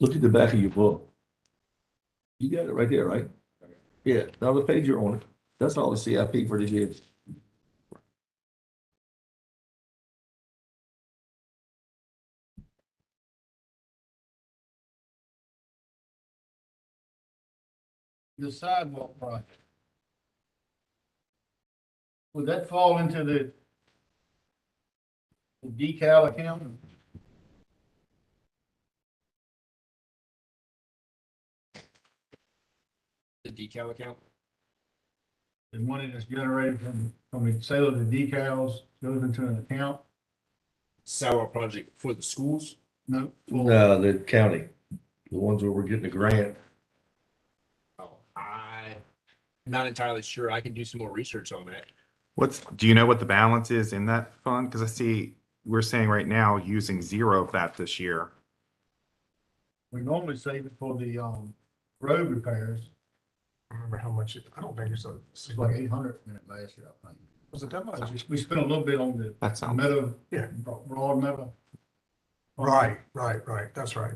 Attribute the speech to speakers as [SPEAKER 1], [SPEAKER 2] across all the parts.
[SPEAKER 1] Look at the back of your book. You got it right there, right? Yeah, now the page you're on, that's all the CIP for this year.
[SPEAKER 2] the sidewalk project. Would that fall into the the decal account?
[SPEAKER 3] the decal account?
[SPEAKER 2] The money that's generated from, from the sale of the decals goes into an account?
[SPEAKER 3] Sidewalk project for the schools?
[SPEAKER 2] No.
[SPEAKER 1] No, Uh, the county, the ones where we're getting the grant.
[SPEAKER 3] Oh, I, not entirely sure. I can do some more research on that.
[SPEAKER 4] What's, do you know what the balance is in that fund? Because I see, we're saying right now, using zero of that this year.
[SPEAKER 2] We normally save it for the, um, road repairs.
[SPEAKER 5] I don't remember how much, it- I don't think it's a,
[SPEAKER 2] It's like eight hundred in it last year, I think.
[SPEAKER 5] was it that much?
[SPEAKER 2] We- We spent a little bit on the
[SPEAKER 4] That sounds,
[SPEAKER 2] meadow.
[SPEAKER 5] Yeah.
[SPEAKER 2] Bro- Broad meadow.
[SPEAKER 5] Right, right, right, that's right.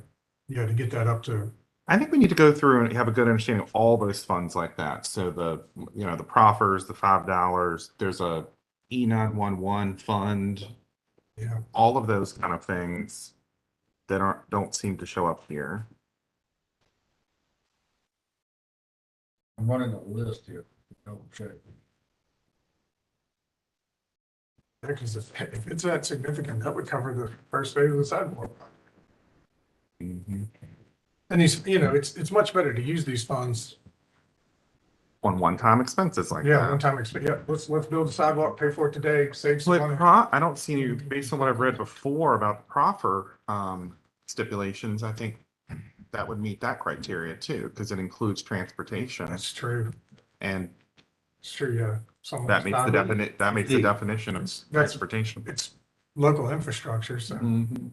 [SPEAKER 5] Yeah, to get that up to,
[SPEAKER 4] I think we need to go through and have a good understanding of all those funds like that. So the, you know, the proffers, the five dollars, there's a E nine one one fund,
[SPEAKER 5] you know,
[SPEAKER 4] all of those kind of things that aren't, don't seem to show up here.
[SPEAKER 2] I'm running a list here. Double check.
[SPEAKER 5] because if if it's that significant, that would cover the first phase of the sidewalk.
[SPEAKER 4] Mm-hmm.
[SPEAKER 5] And these, you know, it's, it's much better to use these funds,
[SPEAKER 4] On one-time expenses like
[SPEAKER 5] yeah, one
[SPEAKER 4] that.
[SPEAKER 5] time, exp- yeah, let's, let's build a sidewalk, pay for it today, save some
[SPEAKER 4] Like
[SPEAKER 5] money.
[SPEAKER 4] pro, I don't see any, based on what I've read before about proffer, um, stipulations, I think that would meet that criteria too, because it includes transportation.
[SPEAKER 5] That's true,
[SPEAKER 4] And
[SPEAKER 5] it's true, yeah. Some of
[SPEAKER 4] that
[SPEAKER 5] those
[SPEAKER 4] meets the
[SPEAKER 5] sidewalks-
[SPEAKER 4] definite, that meets the
[SPEAKER 1] Indeed.
[SPEAKER 4] definition of transportation.
[SPEAKER 5] It's local infrastructure, so.
[SPEAKER 4] Mm-hmm.
[SPEAKER 1] Mm-hmm.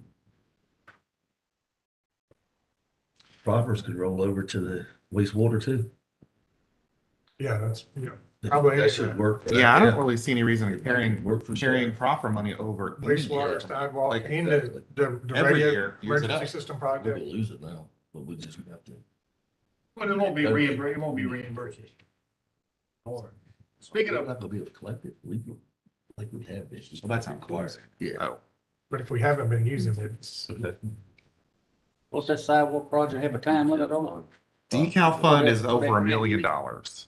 [SPEAKER 1] Proffers could roll over to the wastewater too.
[SPEAKER 5] Yeah, that's, yeah,
[SPEAKER 1] That-
[SPEAKER 5] Probably.
[SPEAKER 1] That should work.
[SPEAKER 4] Yeah, I don't really see any reason in carrying,
[SPEAKER 1] Work for sure.
[SPEAKER 4] carrying proffer money over. any year.
[SPEAKER 5] wastewater, sidewalk,
[SPEAKER 4] Like, uh,
[SPEAKER 5] and the,
[SPEAKER 1] exactly.
[SPEAKER 5] the the
[SPEAKER 4] Every
[SPEAKER 5] radio,
[SPEAKER 4] year, use it
[SPEAKER 5] emergency
[SPEAKER 4] up.
[SPEAKER 5] system
[SPEAKER 1] We're
[SPEAKER 5] project.
[SPEAKER 1] gonna lose it now, but we just have to.
[SPEAKER 2] But it won't be reimbursed, it won't be reimbursed. Or, speaking
[SPEAKER 1] We're
[SPEAKER 2] of,
[SPEAKER 1] not gonna be able to collect it legally, like we have this.
[SPEAKER 3] Well, that's not clear.
[SPEAKER 1] Yeah.
[SPEAKER 4] Oh,
[SPEAKER 5] But if we haven't been using it, it's-
[SPEAKER 6] What's that sidewalk project have a time limit on?
[SPEAKER 4] Decal fund is over a million dollars.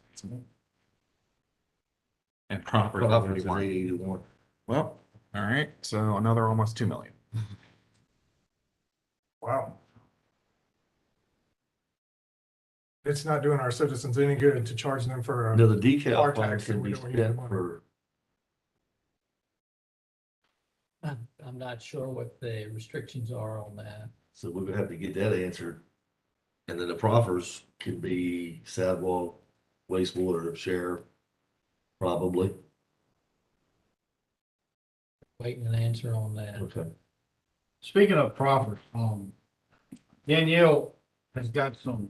[SPEAKER 4] And proffer is over
[SPEAKER 1] Proffers is
[SPEAKER 4] one.
[SPEAKER 1] 81.
[SPEAKER 4] Well, all right, so another almost two million.
[SPEAKER 5] wow. It's not doing our citizens any good to charge them for, a-
[SPEAKER 1] No, the decal
[SPEAKER 5] Car
[SPEAKER 1] fund
[SPEAKER 5] tax,
[SPEAKER 1] can
[SPEAKER 5] we
[SPEAKER 1] be
[SPEAKER 5] don't need the
[SPEAKER 1] spent
[SPEAKER 5] money.
[SPEAKER 1] for,
[SPEAKER 7] I'm, I'm not sure what the restrictions are on that.
[SPEAKER 1] so we're gonna have to get that answered. And then the proffers can be sidewalk, wastewater, sheriff, probably.
[SPEAKER 7] Waiting an answer on that.
[SPEAKER 1] Okay.
[SPEAKER 2] speaking of proffers, um, Danielle has got some,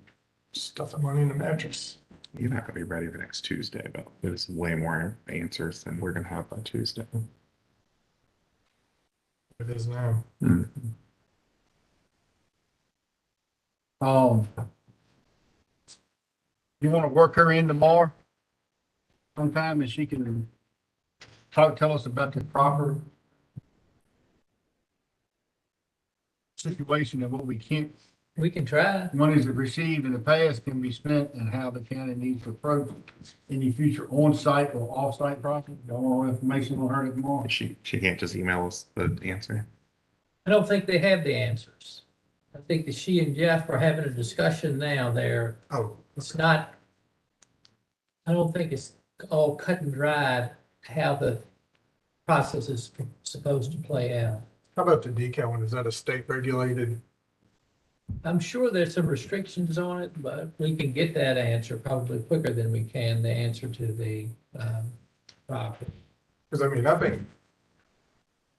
[SPEAKER 5] stuff the money in the mattress.
[SPEAKER 4] You're not gonna be ready for next Tuesday, but there's way more answers than we're gonna have by Tuesday.
[SPEAKER 5] It is now.
[SPEAKER 2] um, you want to work her in tomorrow sometime and she can talk, tell us about the proper situation and what we can't,
[SPEAKER 7] We can try.
[SPEAKER 2] monies that received in the past can be spent and how the county needs to approach any future on-site or off-site project. Y'all want more information on her tomorrow?
[SPEAKER 4] She, she can't just email us the answer.
[SPEAKER 7] I don't think they have the answers. I think that she and Jeff are having a discussion now there.
[SPEAKER 5] Oh,
[SPEAKER 7] It's not, I don't think it's all cut and dried how the process is supposed to play out.
[SPEAKER 5] how about the decal one? Is that a state regulated?
[SPEAKER 7] I'm sure there's some restrictions on it, but we can get that answer probably quicker than we can the answer to the, um, property.
[SPEAKER 5] Because I mean, I think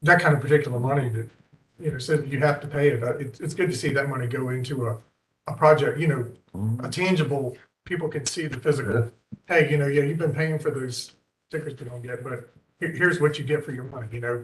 [SPEAKER 5] that kind of particular money that, you know, said you have to pay it, uh, it's, it's good to see that money go into a, a project, you know, a tangible, people can see the physical. Hey, you know, yeah, you've been paying for those stickers we don't get, but here- here's what you get for your money, you know?